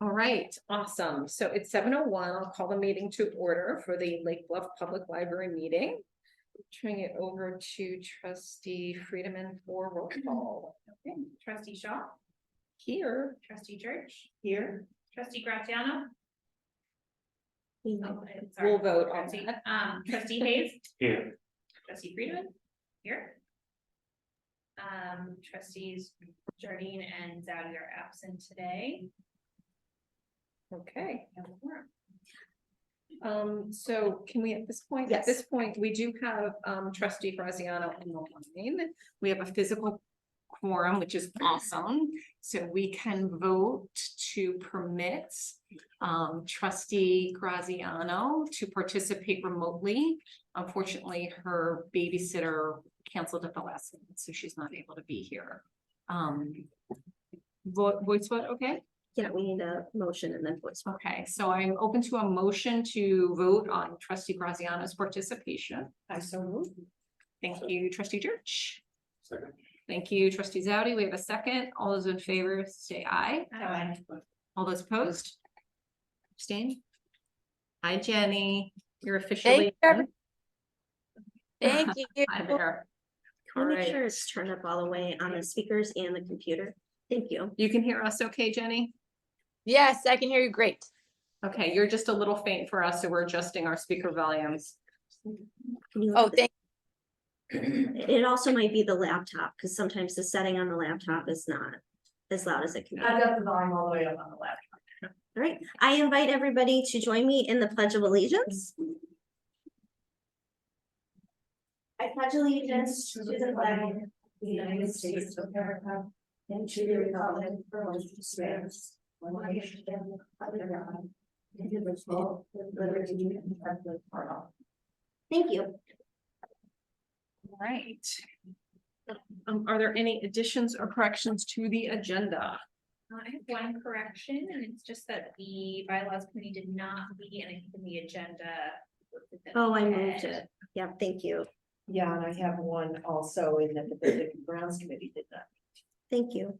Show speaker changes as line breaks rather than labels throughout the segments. All right, awesome. So it's seven oh one. I'll call the meeting to order for the Lake Bluff Public Library meeting. Turning it over to trustee Friedman for roll call.
Okay, Trustee Shaw,
Here.
trustee Church,
Here.
trustee Graziano.
We'll
Oh, sorry,
vote on
trustee-
that.
Um, trustee Hayes,
Here,
trustee Friedman, here. Um, trustees Jardine and Zadi are absent today.
Okay,
We have a quorum.
um, so can we at this point? At
Yes.
this point, we do have um trustee Graziano on the line. We have a physical quorum, which is awesome. So we can vote to permit um trustee Graziano to participate remotely. Unfortunately, her babysitter canceled at the last minute, so she's not able to be here. Um, vo- voice vote, okay?
Yeah, we need a motion and then voice. vote.
Okay, so I'm open to a motion to vote on trustee Graziano's participation. I so move. Thank you, trustee Church.
second,
Thank you, trustee Zadi. We have a second. All those in favor, say aye.
Aye.
All those opposed? Abstain? Hi, Jenny. You're officially.
every-
Thank
you.
Hi there. All
Can we Make
right.
sure it's turned up all the way on the speakers and the computer. Thank you.
You can hear us okay, Jenny?
Yes, I can hear you great.
Okay, you're just a little faint for us, so we're adjusting our speaker volumes.
Can you
Oh,
look at
thank,
the- It also might be the laptop, because sometimes the setting on the laptop is not as loud as it can be. All
got the volume all the way up on the left.
right, I invite everybody to join me in the Pledge of Allegiance. I pledge allegiance to the flag
The United States of America and to the republic for which it stands, one nation under God, indivisible, with liberty and justice for all.
Thank you.
All right. Um, are there any additions or corrections to the agenda?
I have one correction, and it's just that the bylaws committee did not be in in the agenda.
Oh, I moved it. Yeah, thank you.
Yeah, and I have one also in that the Building and Grounds Committee did that.
Thank you.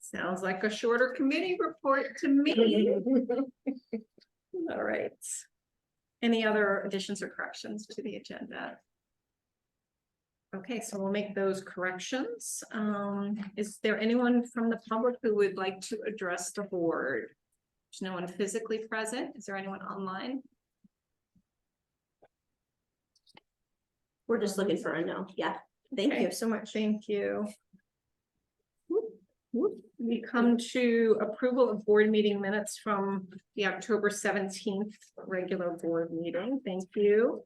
Sounds like a shorter committee report to me. All right. Any other additions or corrections to the agenda? Okay, so we'll make those corrections. Um, is there anyone from the public who would like to address the board? There's no one physically present. Is there anyone online?
We're just looking for a no. Yeah, thank you
Okay.
so much.
Thank you. We come to approval of board meeting minutes from the October seventeenth regular board meeting. Thank you.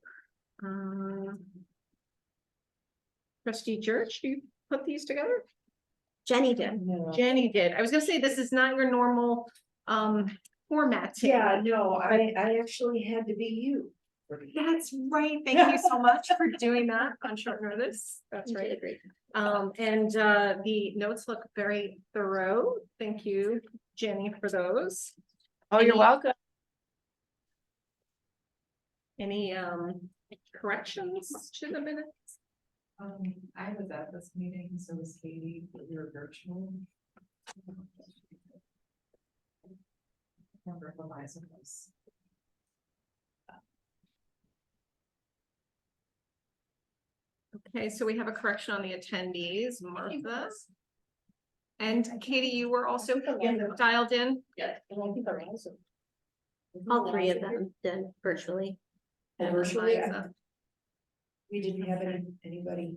Um, Trustee Church, you put these together?
Jenny did.
No.
Jenny did. I was gonna say, this is not your normal um format.
Yeah, no, I, I actually had to be you.
That's right. Thank you so much for doing that on short notice. That's
You
right.
did a great
Um, and, uh, the notes look very thorough. Thank you, Jenny, for those.
oh, you're
Any-
welcome.
Any, um, corrections to the minutes?
Um, I was at this meeting, so was Katie, but we were virtual. Remember Eliza was.
Okay, so we have a correction on the attendees, Martha. And Katie, you were also dialed in?
Yeah, and I think Eliza.
All three of them did virtually.
And virtually, I-
Eliza.
we didn't have any, anybody.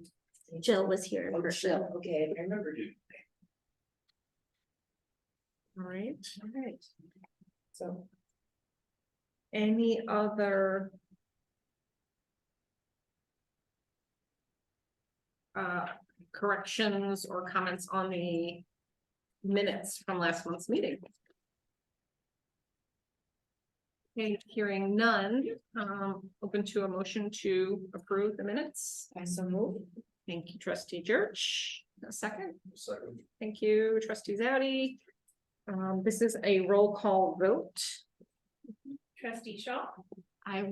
Jill was here in
Oh,
person.
Jill, okay, I remember you.
All right.
All right. So.
Any other? Uh, corrections or comments on the minutes from last month's meeting? Okay, hearing none, um, open to a motion to approve the minutes.
I so moved.
Thank you, trustee Church. A second.
second,
Thank you, trustee Zadi. Um, this is a roll call vote.
Trustee Shaw.
I